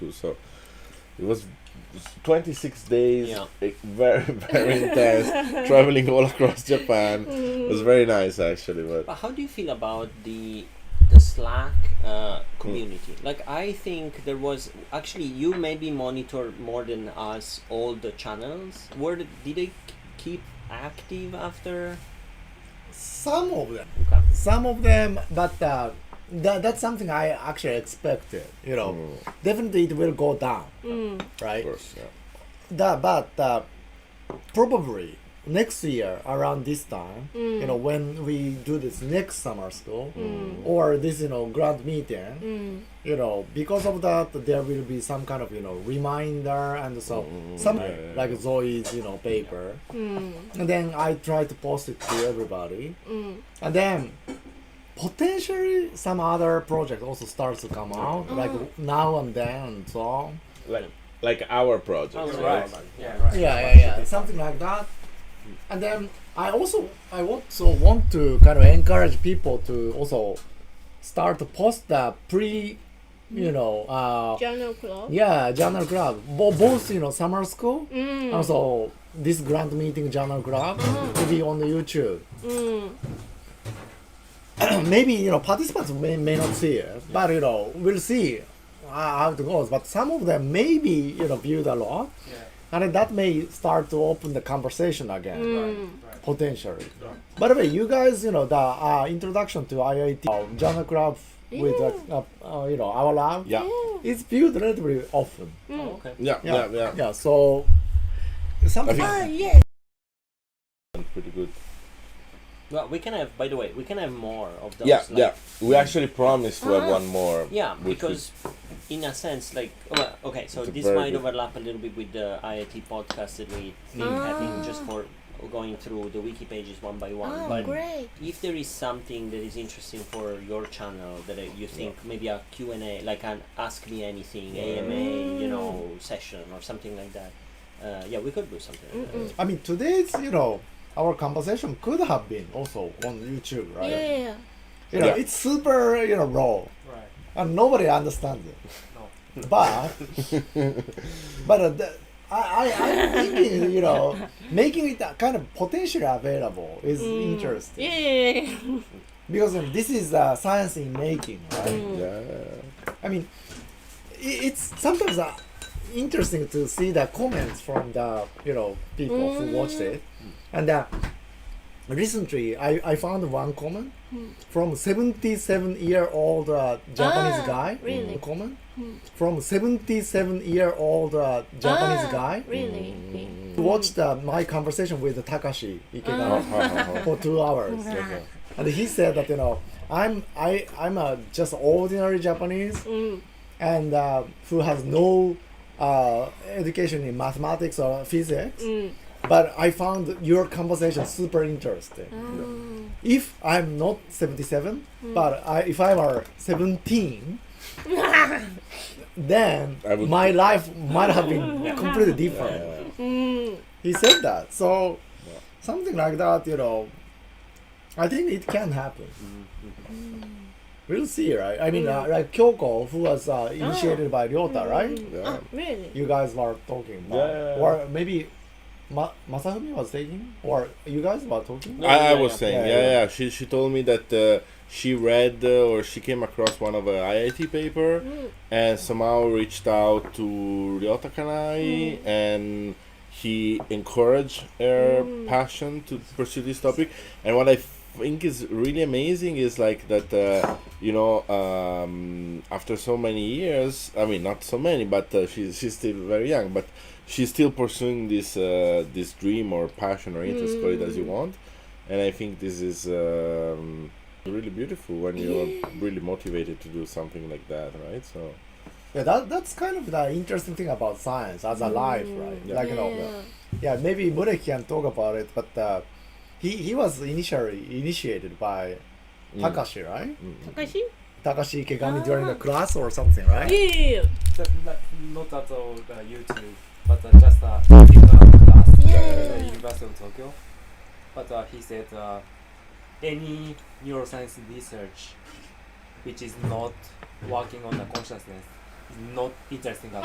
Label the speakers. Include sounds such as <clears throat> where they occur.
Speaker 1: too. So it was s- 26 days, <laughs>
Speaker 2: Yeah.
Speaker 1: eh, very very intense, traveling all across Japan. It was very nice actually, but
Speaker 2: But how do you feel about the the Slack uh, community?
Speaker 1: Hmm.
Speaker 2: Like, I think there was actually you maybe monitor more than us all the channels. Were the- did they k- keep active after?
Speaker 3: Some of them,
Speaker 2: Okay.
Speaker 3: some of them, but uh, that, that's something I actually expected. You know,
Speaker 1: Mm.
Speaker 3: definitely it will go down,
Speaker 1: of
Speaker 3: right?
Speaker 1: course, yeah.
Speaker 3: That, but uh, probably next year around this time, you know, when we do this next summer school or this, you know, grand meeting, you know, because of that, there will be some kind of, you know, reminder and so some
Speaker 1: Mm, Yeah, yeah,
Speaker 3: like Zoe's, you know, paper, and then I try to post it to everybody, and then. Potentially, some other project also starts to come out, like now and then, and so on.
Speaker 1: like like our project, right?
Speaker 2: Yeah, Oh, right.
Speaker 3: yeah, yeah, yeah, something like that. And then I also I also want to kind of encourage people to also start to post the pre, you know, uh,
Speaker 4: Journal club.
Speaker 3: yeah, journal club. Bo- both you know summer school,
Speaker 4: Mm. Uh-huh.
Speaker 3: also this grand meeting journal club to be on the YouTube.
Speaker 4: Mm.
Speaker 3: <clears throat> Maybe you know participants may, may not see it, but you know we'll see how how it goes. But some of them maybe you know viewed a lot. And then that may start to open the conversation again.
Speaker 4: Mm.
Speaker 3: potentially. By the way, you guys, you know, the uh, introduction to IIT, uh, journal club with, uh, uh, uh, you know, our lab,
Speaker 1: Yeah.
Speaker 3: it's viewed relatively often.
Speaker 2: Oh, okay.
Speaker 1: Yeah, yeah,
Speaker 3: Yeah.
Speaker 1: yeah.
Speaker 3: Yeah, so something.
Speaker 1: I
Speaker 4: Ah, yes.
Speaker 1: Pretty good.
Speaker 2: Well, we can have. By the way, we can have more of those.
Speaker 1: Yeah,
Speaker 2: like,
Speaker 1: yeah. We actually promised to have
Speaker 4: Ah.
Speaker 1: one more.
Speaker 2: Yeah,
Speaker 1: which we-
Speaker 2: because in a sense, like, well, okay, so
Speaker 1: It's a
Speaker 2: this
Speaker 1: very
Speaker 2: might
Speaker 1: good-
Speaker 2: overlap a little bit with the IIT podcast that we think having
Speaker 1: Ah.
Speaker 2: just for going through the wiki pages one by one.
Speaker 4: Ah,
Speaker 2: but
Speaker 4: great.
Speaker 2: if there is something that is interesting for your channel that uh, you think maybe a Q&A, like an Ask Me Anything, AMA, you know, session or something like that, uh, yeah, we could do something like that.
Speaker 3: I mean, today's, you know, our conversation could have been also on YouTube, right?
Speaker 4: Yeah, yeah.
Speaker 3: You know,
Speaker 1: Yeah.
Speaker 3: it's super, you know, raw.
Speaker 5: Right.
Speaker 3: and nobody understands it. No.
Speaker 1: <laughs>
Speaker 3: But but uh, the, I, I I'm thinking you know making it uh, kind of potentially available is interesting
Speaker 4: Mm. Yeah, yeah, yeah.
Speaker 3: because um, this is uh, science in making. Right?
Speaker 1: Yeah. <laughs>
Speaker 3: I mean, i it's sometimes uh, interesting to see the comments from the you know people
Speaker 4: Mm.
Speaker 3: who watched it, and uh, recently I, I found one comment
Speaker 4: Hmm.
Speaker 3: from 77 year old uh, Japanese
Speaker 4: Ah,
Speaker 3: guy.
Speaker 4: really? Hmm.
Speaker 3: Comment from 77 year old uh, <laughs> Japanese
Speaker 4: Ah,
Speaker 3: guy
Speaker 4: Really? Ah.
Speaker 3: who watched uh, my conversation with Takashi Ikeda
Speaker 1: Oh,
Speaker 3: <laughs> for two hours.
Speaker 1: Okay.
Speaker 3: And he said that you know I'm I I'm a just ordinary Japanese
Speaker 4: Mm.
Speaker 3: and uh, who has no uh, education in mathematics or physics.
Speaker 4: Mm.
Speaker 3: But I found your conversation super interesting.
Speaker 4: Ah.
Speaker 3: If I'm not 77,
Speaker 4: Mm.
Speaker 3: but I, if I were
Speaker 4: <laughs>
Speaker 3: 17, then
Speaker 1: I would-
Speaker 3: my life might have been completely different.
Speaker 1: oh, Yeah.
Speaker 4: Mm.
Speaker 3: He said that. So something like that, you know, I think it can happen.
Speaker 1: Mm-hmm.
Speaker 3: We'll see, right? I mean, uh, like Kyoko, who was
Speaker 1: Oh.
Speaker 3: uh, initiated by Ryota, right?
Speaker 1: Yeah.
Speaker 4: Ah, really?
Speaker 3: You guys were talking about,
Speaker 1: Mm-hmm. Yeah, yeah, yeah.
Speaker 3: or maybe Ma- Masafumi was taking, or you guys were talking.
Speaker 2: No,
Speaker 1: I, I
Speaker 2: yeah,
Speaker 1: was
Speaker 2: yeah.
Speaker 1: saying,
Speaker 3: Yeah,
Speaker 1: yeah, yeah.
Speaker 3: yeah.
Speaker 1: She she told me that uh, she read uh, or she came across one of her IIT paper
Speaker 2: Mm.
Speaker 1: and somehow reached out to Ryota
Speaker 2: Mm.
Speaker 1: Kanai and he encouraged her
Speaker 2: Mm.
Speaker 1: passion to pursue this topic. And what I think is really amazing is like that, uh, you know, um, after so many years, I mean, not so many, but uh, she's she's still very young, but she's still pursuing this uh, this dream or passion or interest, call it as you want. And I think this is um, really beautiful when you're really motivated to do something like that, right? So
Speaker 3: Yeah, that, that's kind of the interesting thing about science as a life, right?
Speaker 1: Mm.
Speaker 4: Mm.
Speaker 1: Yeah.
Speaker 3: Like you know, yeah, maybe Murek can talk about it, but uh, he he was initially initiated by
Speaker 1: Mm.
Speaker 3: Takashi, right?
Speaker 4: Takashi?
Speaker 3: Takashi Ikegami
Speaker 4: Ah.
Speaker 3: during the class or something, right?
Speaker 4: Yeah.
Speaker 5: That, not, not at all uh, YouTube, but uh, just uh, in a class at the
Speaker 4: Yeah.
Speaker 5: University of Tokyo. But uh, he said uh, any neuroscience research which is not working on the consciousness not interesting at